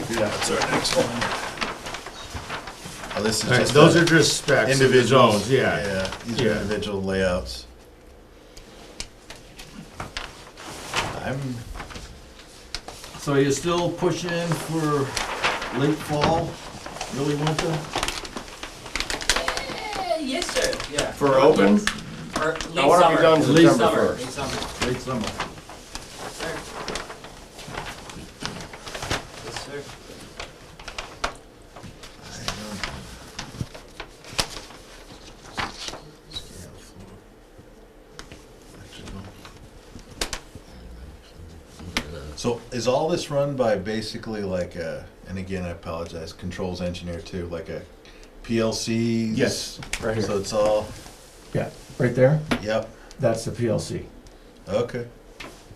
That's our next one. Oh, This is All right, just Those the are just specs. of the individuals. zones, Yeah, These yeah. are individual layouts. I'm, So you're still pushing for late fall, early winter? Eh, Yes, sir, yeah. For open? Or late I wanna be summer. done Late summer, September first. Late summer, Late summer. sir. Yes, sir. I don't. Scale floor. Actually, no. So is all this run by basically like a, and again, I apologize, controls engineer too, like a PLC? Yes. Right So here, it's all, yeah, right there, yep, that's the PLC. okay.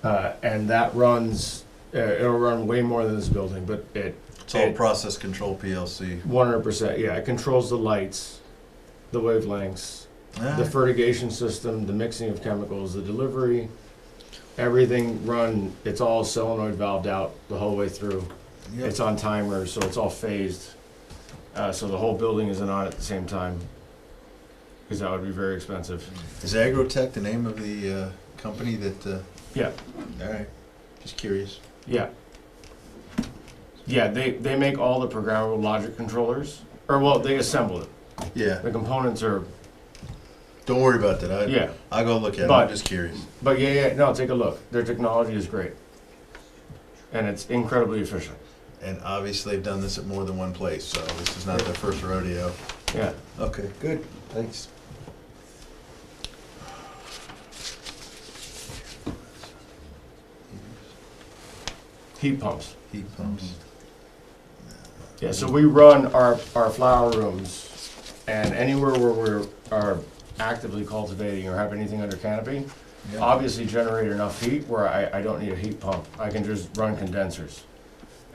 Uh, and that runs, uh, it'll run way more than this building, but it It's all It- process control PLC. One hundred percent. Yeah, it controls the lights, the wavelengths, Ah, the fertigation system, the mixing of chemicals, the delivery, everything run. It's all solenoid valved out the whole way through. yep. It's on timers, so it's all phased. Uh, so the whole building isn't on at the same time, because that would be very expensive. Is Agrotech the name of the uh, company that? Uh, Yeah. All right. Just curious. Yeah. Yeah, they, they make all the programmable logic controllers, or well, they assemble it. Yeah. The components are Don't worry about that. I, yeah. I'll go look at it. I'm But- just curious. But yeah, yeah, no, take a look. Their technology is great. And it's incredibly efficient. And obviously, they've done this at more than one place, so this is not their first rodeo. Yeah. Okay. Good. Thanks. Heat pumps. Heat pumps. Yeah, so we run our, our flower rooms and anywhere where we're are actively cultivating or have anything under canopy, Yeah. obviously generate enough heat where I, I don't need a heat pump. I can just run condensers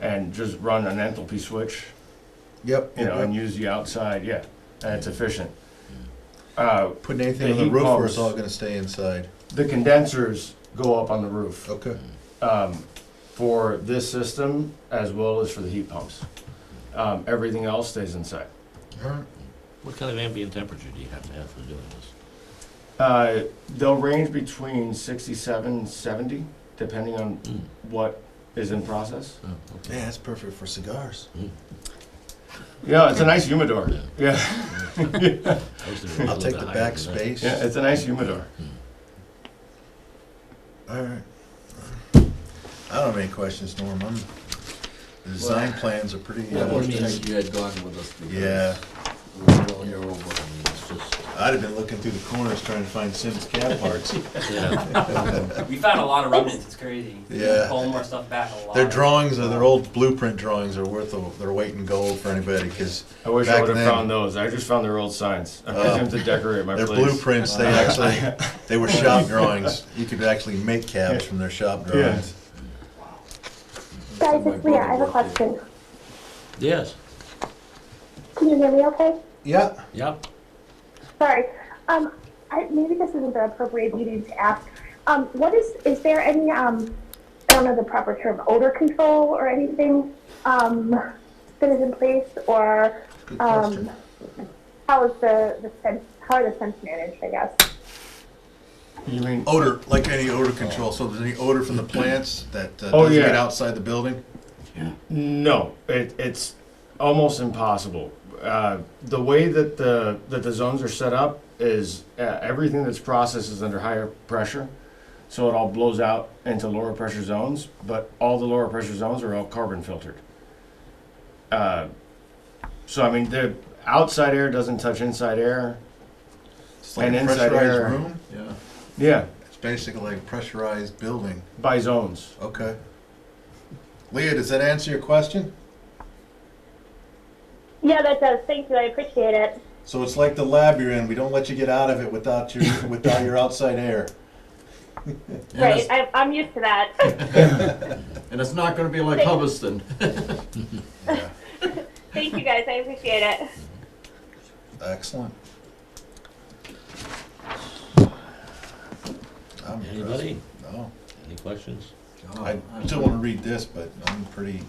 and just run an enthalpy switch, yep. you know, yep. and use the outside, yeah. And it's efficient. Uh, Putting anything the on the heat roof, or it's pumps- all going to stay inside. the condensers go up on the roof. Okay. um, for this system as well as for the heat pumps. Um, everything else stays inside. All Mm-hmm. right. What kind of ambient temperature do you have to have for doing this? Uh, they'll range between 67 and 70, depending on Mm, what is in process. oh, Yeah, that's perfect for cigars. Mm, Yeah, it's a nice humidor. Yeah, I'll take the back space. yeah it's a nice humidor. All right. I don't have any questions, Norm. I'm, the design plans are pretty. Yeah, uh, one thing you had gone with us. because Yeah, We were all here over, it's just, I'd have been looking through the corners trying to find Sims cat parts. We found a lot of remnants, it's crazy. We Yeah. Pull more stuff back a lot. Their drawings, or their old blueprint drawings are worth of- their weight in gold for anybody, because I wish Back I would have then- found those. I just found their old signs. I'm Oh. going to decorate my their place. blueprints, they actually, they were shop drawings. You could actually make cabs from their shop drawings. Guys, it's Leah. I have a question. Yes, Can you hear me okay? Yeah, yep. Sorry. Um, I, maybe this isn't the appropriate meeting to ask. Um, what is, is there any, um, I don't know the proper term, odor control or anything, um, that is in place or, Good um, question. how is the, the sense, how are the scents managed, I guess? You mean? odor, like any odor control, so there's any odor from the plants that uh, Oh, doesn't get yeah. outside the building? No, it, it's almost impossible. Uh, the way that the that the zones are set up is uh, everything that's processed is under higher pressure, so it all blows out into lower pressure zones. But all the lower pressure zones are all carbon filtered. Uh, so I mean, the outside air doesn't touch inside air. It's like And a inside pressurized air. room? yeah. Yeah, It's basically like a pressurized building. by zones. Okay. Leah, does that answer your question? Yeah, that does. Thank you. I appreciate it. So it's like the lab you're in. We don't let you get out of it without your without your outside air. And it's, I, I'm used to that. and it's not gonna be like Hubbardston. Thank you guys. I appreciate it. Excellent. I'm impressed. Anybody? No, Any questions? God, I still want to read this, but I'm pretty